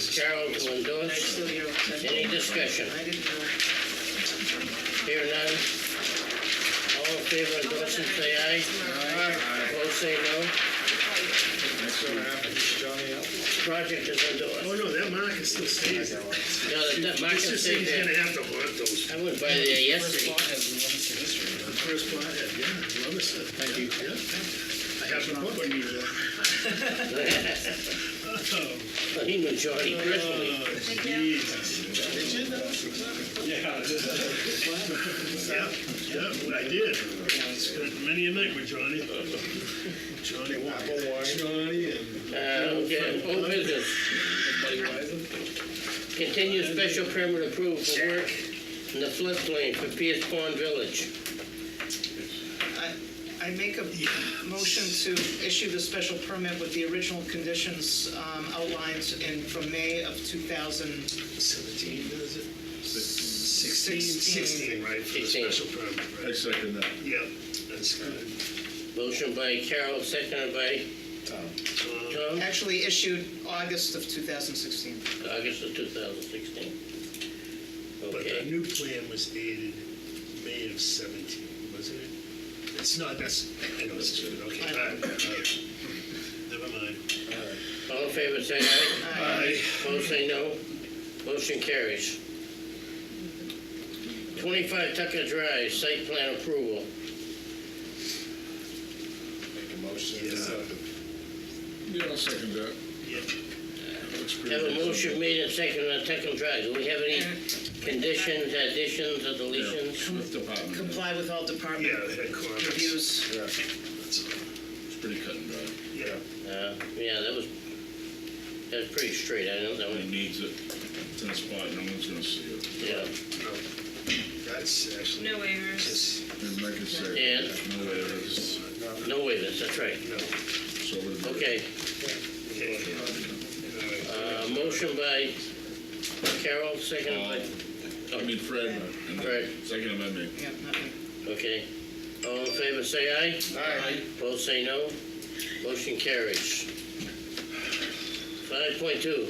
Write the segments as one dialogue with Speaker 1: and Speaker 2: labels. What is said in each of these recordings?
Speaker 1: Cheryl to
Speaker 2: I
Speaker 1: endorse.
Speaker 2: still hear upset.
Speaker 1: Any discussion?
Speaker 2: I didn't uh, know.
Speaker 1: Here none. All in favor of endorsing, say aye. Opposed, say no.
Speaker 3: That's what happens, Johnny.
Speaker 1: Project is
Speaker 4: Oh,
Speaker 1: endorsed.
Speaker 4: no, that market still stays there.
Speaker 1: Now, the de- market
Speaker 4: This is,
Speaker 1: stayed
Speaker 4: he's
Speaker 1: there.
Speaker 4: gonna have to haunt those,
Speaker 1: I went by there yesterday.
Speaker 4: the first pothead, yeah, love us. Thank you. Yeah. I have a book.
Speaker 1: He knew Johnny
Speaker 4: Uh,
Speaker 1: personally.
Speaker 4: Did you know? Yeah, yeah, I did. Spent many a night with Johnny. Johnny Walker.
Speaker 3: Johnny and.
Speaker 1: Uh, okay, old business. Continue special permit approval for work in the floodplain for Pierce Pond Village.
Speaker 2: I make a motion to issue the special permit with the original conditions um, outlined in, from May of 2016.
Speaker 4: Seventeen, is it? Sixteen. Sixteen, right, for the
Speaker 1: Sixteen.
Speaker 4: special permit,
Speaker 3: I
Speaker 4: right?
Speaker 3: second that.
Speaker 4: Yeah, that's good.
Speaker 1: Motion by Carol, seconded by Tom,
Speaker 2: Actually issued August of 2016.
Speaker 1: August of 2016.
Speaker 4: But the
Speaker 1: Okay,
Speaker 4: new plan was dated May of seventeen, wasn't it? It's not, that's, I know it's good, okay. all right, all right. Never mind. uh,
Speaker 1: all in favor, say aye.
Speaker 4: I,
Speaker 1: Opposed, say no. Motion carries. 25 Tucker Drive, site plan approval.
Speaker 3: Make a motion.
Speaker 4: Yeah.
Speaker 3: Yeah, I'll second that.
Speaker 4: yeah,
Speaker 3: Looks pretty
Speaker 1: Have a
Speaker 3: decent.
Speaker 1: motion made and seconded on Tucker Drive. Do we have any conditions, additions, or
Speaker 3: Yeah,
Speaker 1: deletions?
Speaker 3: with department.
Speaker 2: Comply with all
Speaker 4: yeah,
Speaker 2: department
Speaker 4: I had comments.
Speaker 2: reviews.
Speaker 3: Yeah,
Speaker 4: That's all.
Speaker 3: it's pretty cut and dry.
Speaker 4: Yeah,
Speaker 1: Uh, yeah, that was, that's pretty straight, I know that
Speaker 3: He
Speaker 1: one,
Speaker 3: needs it. It's in a spot, no one's gonna see it.
Speaker 1: yeah.
Speaker 4: no, that's actually.
Speaker 5: No waivers.
Speaker 4: Yes,
Speaker 3: And like I said.
Speaker 1: Yeah.
Speaker 3: No way, it's,
Speaker 1: No waivers, that's right.
Speaker 4: no,
Speaker 3: so would.
Speaker 1: Okay,
Speaker 4: okay. All
Speaker 1: uh,
Speaker 4: right.
Speaker 1: motion by Carol, second by,
Speaker 3: Um, I mean Fred, and
Speaker 1: Fred.
Speaker 3: then second by me.
Speaker 2: Yeah, not me.
Speaker 1: okay. All in favor, say aye. Aye. Both say no. Motion carries. Five point two,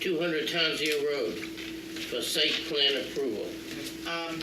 Speaker 1: two hundred Townsend Road for site plan approval.
Speaker 2: Um,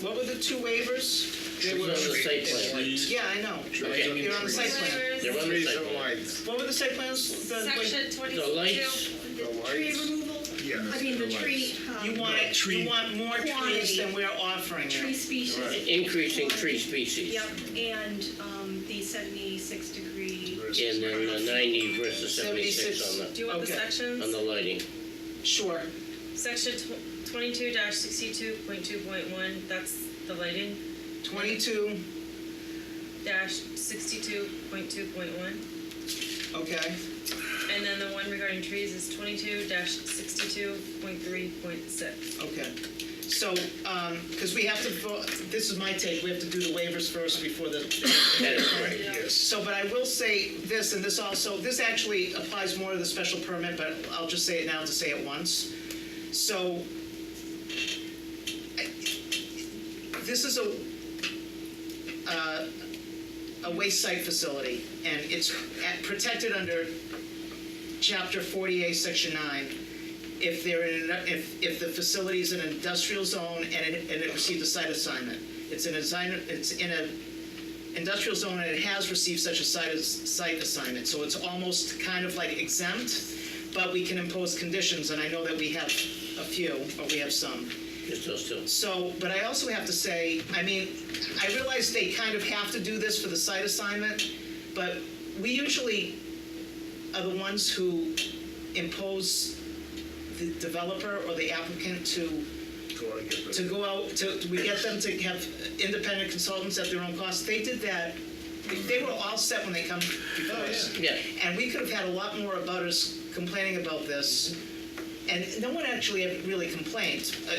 Speaker 2: What were the two waivers? They
Speaker 1: It's
Speaker 2: were-
Speaker 1: on the site plan.
Speaker 3: Please,
Speaker 2: Yeah, I know.
Speaker 1: Okay,
Speaker 2: They're on the site plan.
Speaker 1: they're on the site plan.
Speaker 2: What were the site plans? The-
Speaker 5: Section twenty-two.
Speaker 1: lights.
Speaker 5: The tree removal,
Speaker 4: Yeah,
Speaker 5: I mean, the tree,
Speaker 2: You
Speaker 5: um,
Speaker 2: want,
Speaker 4: Yeah, tree-
Speaker 2: you want more trees
Speaker 5: Quantity.
Speaker 2: than we're offering you.
Speaker 5: tree species.
Speaker 1: Increasing tree species.
Speaker 5: Yep, and, um, the seventy-six degree,
Speaker 4: versus-
Speaker 1: And then the ninety versus seventy-six
Speaker 2: 76.
Speaker 1: on the.
Speaker 5: do you want the
Speaker 2: Okay.
Speaker 5: sections?
Speaker 1: On the lighting,
Speaker 2: Sure.
Speaker 6: Section tw- twenty-two sixty-two point two point one, that's the lighting,
Speaker 2: 22,
Speaker 6: dash sixty-two point two point one.
Speaker 2: okay.
Speaker 6: And then the one regarding trees is twenty-two sixty-two point three point six.
Speaker 2: Okay, so, because we have to, vote. this is my take, we have to do the waivers first before the,
Speaker 1: that is right.
Speaker 4: Yes,
Speaker 2: so, but I will say this, and this also, this actually applies more to the special permit, but I'll just say it now to say it once. So, I- this is a, uh, a waste site facility, and it's at- protected under chapter 48, section 9. If they're in, an- if, if the facility is an industrial zone and it, and it received a site assignment, it's an assignment, it's in a industrial zone and it has received such a site, as- site assignment, so it's almost kind of like exempt, but we can impose conditions, and I know that we have a few, or we have some.
Speaker 1: Just those two.
Speaker 2: So, but I also have to say, I mean, I realize they kind of have to do this for the site assignment, but we usually are the ones who impose the developer or the applicant to,
Speaker 4: go on, get
Speaker 2: to
Speaker 4: ready.
Speaker 2: go out, to, we get them to have independent consultants at their own cost. They did that, they were all set when they come before us.
Speaker 1: Yeah,
Speaker 2: And we could have had a lot more abutters complaining about this, and no one actually really complained. Uh,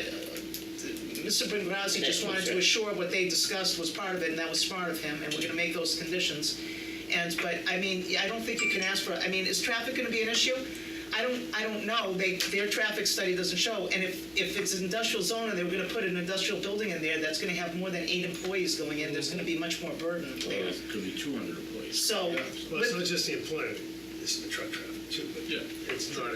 Speaker 2: Mr. Bengrazi just wanted to assure what they discussed was part of it, and that was smart of him, and we're gonna make those conditions. And, but, I mean, I don't think you can ask for, I mean, is traffic gonna be an issue? I don't, I don't know, they, their traffic study doesn't show, and if, if it's an industrial zone and they were gonna put an industrial building in there, that's gonna have more than eight employees going in, there's gonna be much more burden there.
Speaker 3: it could be two hundred employees.
Speaker 2: So,
Speaker 4: Well, it's not just the employment, it's the truck traffic too, but
Speaker 3: Yeah.
Speaker 4: it's not